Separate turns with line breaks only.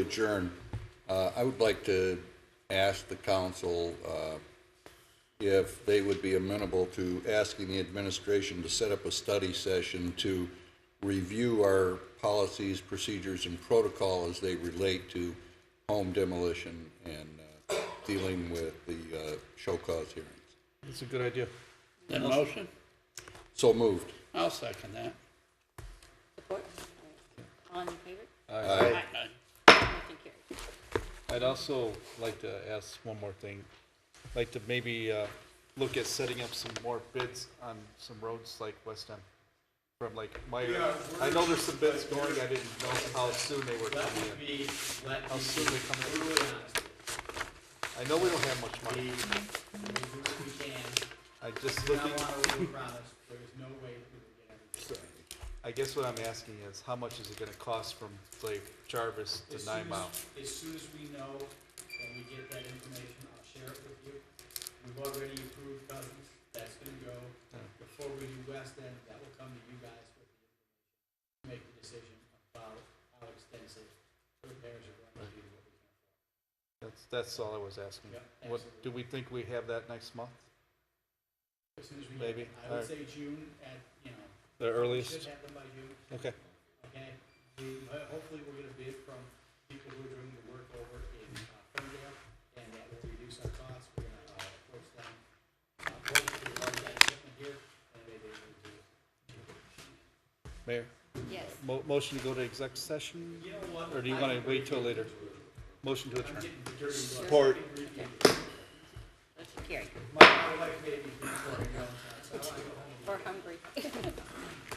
adjourn, uh, I would like to ask the council uh, if they would be amenable to asking the administration to set up a study session to review our policies, procedures, and protocol as they relate to home demolition and uh, dealing with the uh, show cause hearings.
That's a good idea.
The motion?
So moved.
I'll second that.
Support? All in favor?
Aye.
Motion carried.
I'd also like to ask one more thing. Like to maybe uh, look at setting up some more bids on some roads like West End. From like Meyer. I know there's some bids going. I didn't know how soon they were
Let
coming
me
in.
be, let me
How soon they come
be
in.
brutally honest with
I know we don't have much
you. We,
money.
we do what we can,
I just
I
looking,
don't wanna overpromise, there is no way that we will get everything.
I guess what I'm asking is how much is it gonna cost from like Jarvis
As
to
soon
Nine
as-
Mile?
As soon as we know and we get that information, I'll share it with you. We've already approved Cousins, that's gonna go. Before we do West End, that will come to you guys with the information. Make the decision about how extensive repairs are going to be. what we can.
That's, that's all I was asking.
Yeah,
What, do we think we have that next month?
As soon as we get,
Maybe.
it. I would say June at, you know,
The
we
earliest?
should have them by June.
Okay.
okay? We- uh, Hopefully, we're gonna bid from people who are doing the work over in uh, Ferndale, and that will reduce our costs, we're gonna uh, approach them. uh, Hopefully, we'll have that equipment here, and they they will do.
Mayor?
Yes.
Mo- Motion to go to exec session?
You know what?
Or do you want to wait till later? Motion to adjourn.
Support. Motion carried.
My my wife made me, before I go, so I wanna go home.
We're hungry.